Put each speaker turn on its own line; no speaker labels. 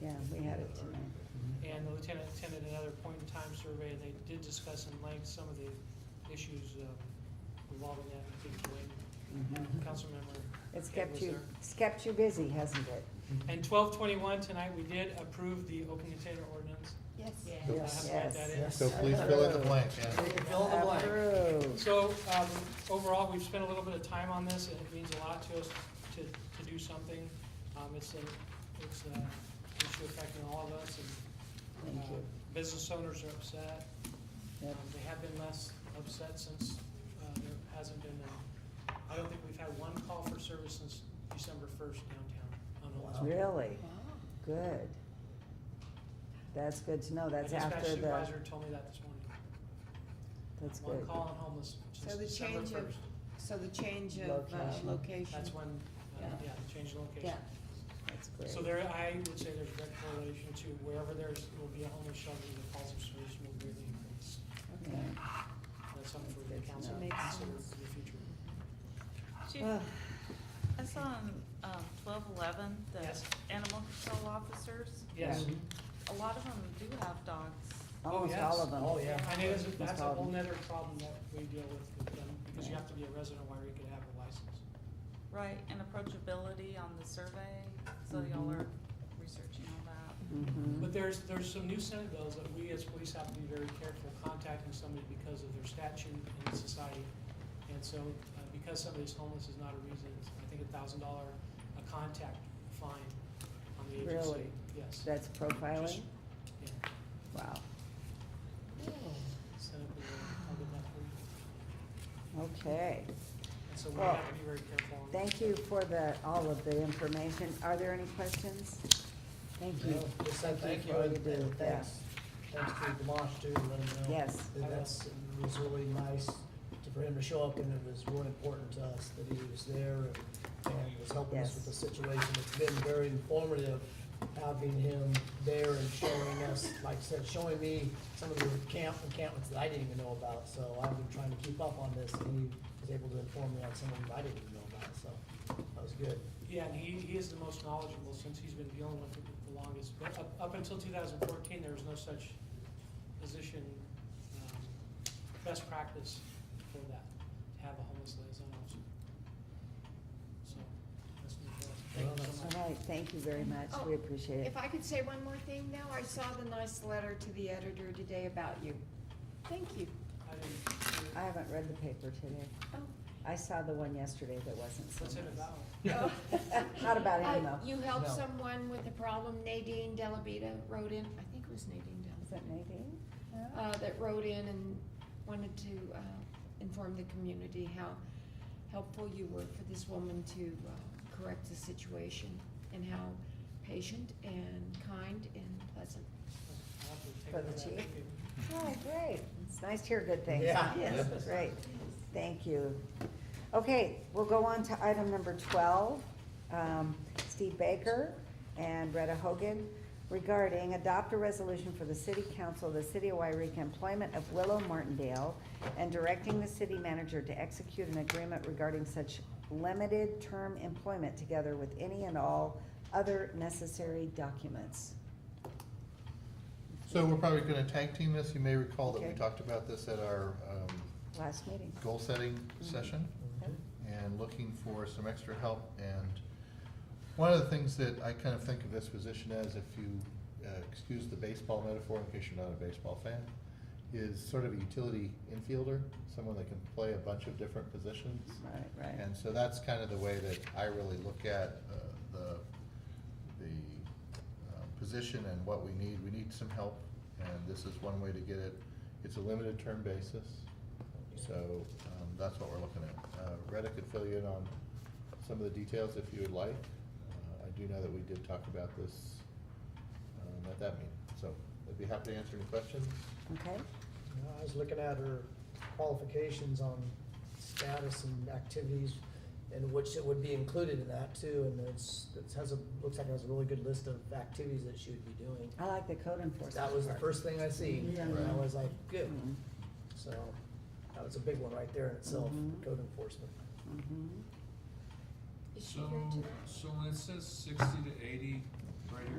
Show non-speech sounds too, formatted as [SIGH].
Yeah, we had it tonight.
And the lieutenant attended another point in time survey, and they did discuss in length some of the issues uh, involving that, I think, Dwayne, Councilmember.
Mm-hmm. It's
Ed Mm-hmm.
kept
was
you,
there.
it's kept you busy, hasn't it?
And twelve twenty-one, tonight, we did approve the open container ordinance.
Yes.
I have to add that in.
Yes.
So please fill in the blank, yeah.
Fill the blank.
Approved.
So, um, overall, we've spent a little bit of time on this, and it means a lot to us to, to do something. Um, it's a, it's a issue affecting all of us, and,
Thank
uh,
you.
business owners are upset. Um,
Yep.
they have been less upset since, uh, there hasn't been, uh, I don't think we've had one call for service since December first downtown on Oldsmobile.
Really? Good. That's good to know. Oh, That's after
dispatch
the,
supervisor told me that this morning.
that's
One
good.
call on homeless since
So the
December
change
first.
of- So the change of uh,
Location.
location.
That's when, uh,
Yeah.
yeah, the change in location.
Yeah.
That's great.
So there, I would say there's direct correlation to wherever there's, will be a homeless shelter, the calls of service will greatly increase.
Okay.
Yeah.
That's something for the
Good to
council to
know. Makes
consider
sense.
in the future.
Chief,
Ah,
I saw on um, twelve eleven, the
Yes.
animal control officers,
Yes,
Yeah.
a lot of them do have dogs.
Almost
yes.
all of
Oh,
them.
yeah.
and it is, that's a whole
Problem.
nother problem that we deal with with them, because you
Yeah.
have to be a resident where you could have a license.
Mm-hmm.
Right, and approachability on the survey, so y'all
Mhm.
are researching all that.
Mhm.
But there's, there's some new Senate bills that we as police have to be very careful contacting somebody because of their statute in society. And so, uh, because somebody's homeless is not a reason, it's, I think a thousand dollar a contact fine on the agency.
Really?
Yes.
That's profiling?
Just- Yeah,
Wow.
Senate bill, I'll get that for you.
Okay.
And so we
Well,
have to be very careful on.
Thank you for the, all of the information. Are there any questions? Thank you.
Just said
Thank
thank
you
you
for all
and
you do,
and
yeah.
thanks, thanks to Demosh too, and let him know.
Yes.
That that's, it was really nice to- for him to show up and it was really important to us that he was there and- and was helping us with the
Yes.
situation. It's been very informative having him there and showing us, like I said, showing me some of the camp encampments that I didn't even know about. So I've been trying to keep up on this and he was able to inform me on some of them I didn't even know about, so that was good.
Yeah, and he, he is the most knowledgeable since he's been dealing with it the longest. But up, up until two thousand fourteen, there was no such position, um, best practice for that, to have a homeless liaison officer. So, that's new for us. Thank you so much.
All right, thank you very much.
Oh,
We appreciate it.
If I could say one more thing now, I saw the nice letter to the editor today about you. Thank you.
I didn't-
I haven't read the paper today.
Oh.
I saw the one yesterday that wasn't so
What's it about?
nice. [LAUGHS] Not about him,
Uh,
though.
You helped
No.
someone with a problem, Nadine Delabita wrote in, I think it was Nadine
Is that
Delabita.
Nadine?
Uh, that wrote in and wanted to, uh, inform the community how helpful you were for this woman to, uh, correct the situation and how patient and kind and pleasant.
I'll have to take
For the
that.
chief?
Thank you.
Oh, great. It's nice to hear good things.
Yeah.
Yes, great. Thank you. Okay, we'll go on to item number twelve. Um, Steve Baker and Retta Hogan regarding adopt a resolution for the city council of the city of Wairika employment of Willow Martindale and directing the city manager to execute an agreement regarding such limited term employment together with any and all other necessary documents.
So we're probably gonna tag team this, you may recall that we
Okay.
talked about this at our, um,
Last meeting.
goal-setting session.
Okay.
and looking for some extra help. And one of the things that I kind of think of this position as, if you uh, excuse the baseball metaphor, in case you're not a baseball fan, is sort of a utility infielder, someone that can play a bunch of different positions.
Right, right.
And so that's kind of the way that I really look at uh, the, the uh, position and what we need. We need some help, and this is one way to get it. It's a limited term basis, so um, that's what we're looking at. Uh, Retta could fill you in on some of the details if you would like. Uh, I do know that we did talk about this um, at that meeting, so I'd be happy to answer any questions.
Okay,
You know, I was looking at her qualifications on status and activities, and which it would be included in that too, and it's, it has a, looks like it has a really good list of activities that she would be doing.
I like the code enforcement.
That was the
part.
first thing I see, and I
Right.
was like, good,
Mhm,
so, that was a big one right there in itself,
Mhm.
code enforcement.
mhm.
Is she
So,
here tonight?
so when it says sixty to eighty, right here,